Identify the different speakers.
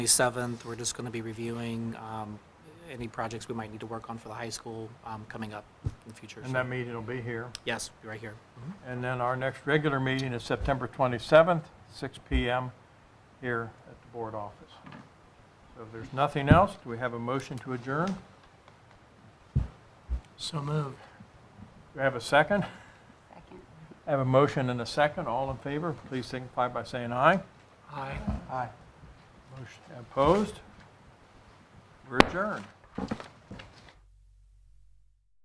Speaker 1: 27th, we're just going to be reviewing um, any projects we might need to work on for the high school um, coming up in the future.
Speaker 2: And
Speaker 1: So,
Speaker 2: that meeting will be here.
Speaker 1: Yes, right here. Mhm.
Speaker 2: And then our next regular meeting is September 27th, 6 PM, here at the board office. So if there's nothing else, do we have a motion to adjourn? Do
Speaker 3: So moved.
Speaker 2: we have a second?
Speaker 4: Second.
Speaker 2: I have a motion and a second. All in favor, please signify by saying aye.
Speaker 3: Aye.
Speaker 2: Aye. Opposed? We're adjourned.